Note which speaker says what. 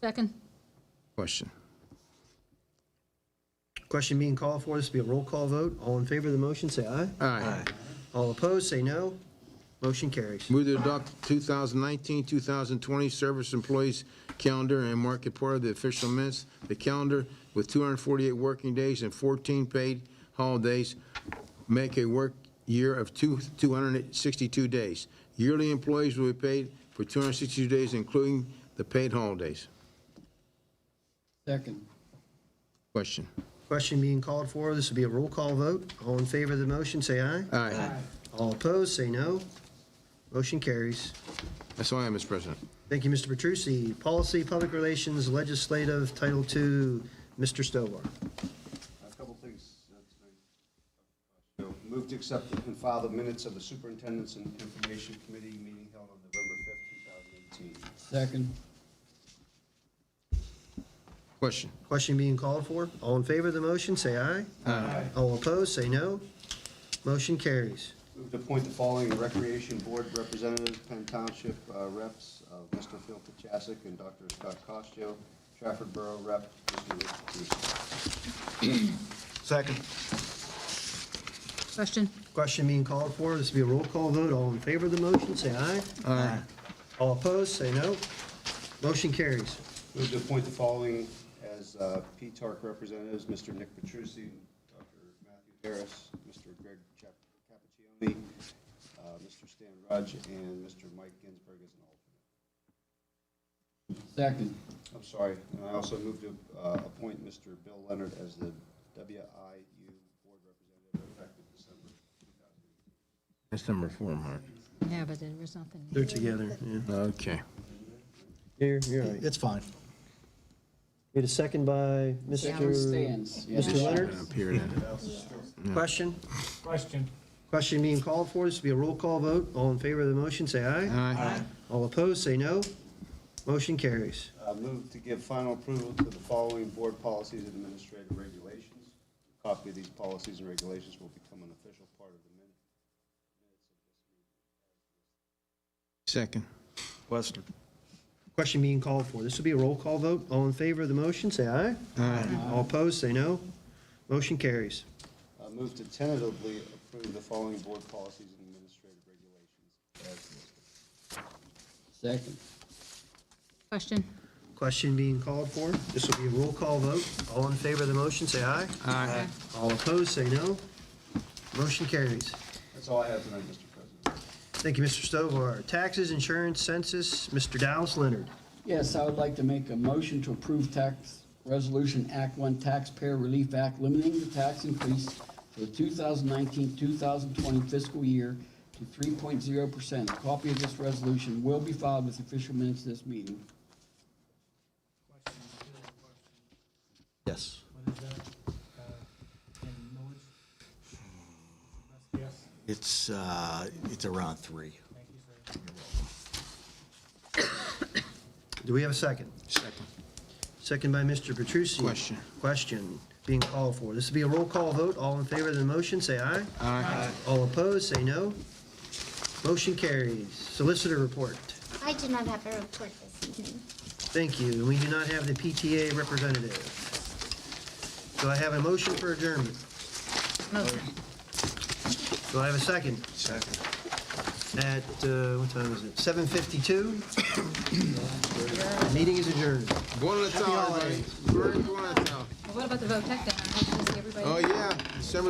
Speaker 1: Second.
Speaker 2: Question.
Speaker 3: Question being called for, this will be a roll call vote. All in favor of the motion, say aye.
Speaker 2: Aye.
Speaker 3: All opposed, say no. Motion carries.
Speaker 2: Move to adopt 2019-2020 Service Employees Calendar and mark it part of the official minutes. The calendar with 248 working days and 14 paid holidays make a work year of two- 262 days. Yearly employees will be paid for 262 days, including the paid holidays.
Speaker 4: Second.
Speaker 2: Question.
Speaker 3: Question being called for, this will be a roll call vote. All in favor of the motion, say aye.
Speaker 2: Aye.
Speaker 3: All opposed, say no. Motion carries.
Speaker 2: That's all I have, Mr. President.
Speaker 3: Thank you, Mr. Petrucci. Policy, Public Relations, Legislative, Title II, Mr. Stovall.
Speaker 5: A couple things. You know, Move to accept and file the minutes of the Superintendent's and Information Committee meeting held on November 5th, 2018.
Speaker 4: Second.
Speaker 2: Question.
Speaker 3: Question being called for, all in favor of the motion, say aye. Aye. All opposed, say no. Motion carries.
Speaker 5: Move to appoint the following Recreation Board representatives, Penn Township uh, reps, uh, Mr. Phil Kachasik and Dr. Scott Costo, Trafford Borough Rep, Mr. Rick Petrusi.
Speaker 2: Second.
Speaker 1: Question.
Speaker 3: Question being called for, this will be a roll call vote, all in favor of the motion, say aye.
Speaker 2: Aye.
Speaker 3: All opposed, say no. Motion carries.
Speaker 5: Move to appoint the following as uh, P-TARC representatives, Mr. Nick Petrusi, Dr. Matthew Harris, Mr. Greg Chap- Cappuccioni, uh, Mr. Stan Rudge, and Mr. Mike Ginsburg as an alternate.
Speaker 4: Second.
Speaker 5: I'm sorry, and I also move to uh, appoint Mr. Bill Leonard as the WIU Board Representative effective December 2018.
Speaker 2: That's number four, Mark.
Speaker 1: Yeah, but there was nothing.
Speaker 3: They're together, yeah.
Speaker 2: Okay.
Speaker 3: You're, you're right.
Speaker 6: It's fine.
Speaker 3: Need a second by
Speaker 4: Second
Speaker 3: Mr.
Speaker 4: stands.
Speaker 3: Mr. Leonard?
Speaker 2: Up here then.
Speaker 3: Question?
Speaker 7: Question.
Speaker 3: Question being called for, this will be a roll call vote, all in favor of the motion, say aye.
Speaker 2: Aye.
Speaker 3: All opposed, say no. Motion carries.
Speaker 5: Uh, Move to give final approval to the following board policies and administrative regulations. Copy of these policies and regulations will become an official part of the minutes.
Speaker 2: Second.
Speaker 6: Western.
Speaker 3: Question being called for, this will be a roll call vote, all in favor of the motion, say aye. Aye. All opposed, say no. Motion carries.
Speaker 5: Uh, Move to tentatively approve the following board policies and administrative regulations as listed.
Speaker 4: Second.
Speaker 1: Question.
Speaker 3: Question being called for, this will be a roll call vote, all in favor of the motion, say aye.
Speaker 2: Aye.
Speaker 3: All opposed, say no. Motion carries.
Speaker 5: That's all I have tonight, Mr. President.
Speaker 3: Thank you, Mr. Stovall. Taxes, insurance, census, Mr. Dallas Leonard.
Speaker 4: Yes, I would like to make a motion to approve tax resolution Act One Taxpayer Relief Act limiting the tax increase for the 2019-2020 fiscal year to 3.0%. A copy of this resolution will be filed with official minutes of this meeting.
Speaker 6: Yes.
Speaker 7: What is that? Uh, And knowledge? Yes,
Speaker 6: It's, uh, it's around three.
Speaker 7: thank you, sir.
Speaker 3: Do we have a second?
Speaker 2: Second.
Speaker 3: Second by Mr. Petrucci.
Speaker 2: Question.
Speaker 3: Question being called for. This will be a roll call vote. All in favor of the motion, say aye.
Speaker 2: Aye.
Speaker 3: All opposed, say no. Motion carries. Solicitor report.
Speaker 8: I do not have a report this evening.
Speaker 3: Thank you. And we do not have the PTA representative. Do I have a motion for adjournment?
Speaker 1: Motion.
Speaker 3: Do I have a second?
Speaker 6: Second.
Speaker 3: At, uh, what time is it? 7:52? Meeting is adjourned.
Speaker 2: Going to the tower, everybody. We're going to the tower.
Speaker 1: Well, What about the vote tech then? I have to see everybody.
Speaker 2: Oh, yeah, December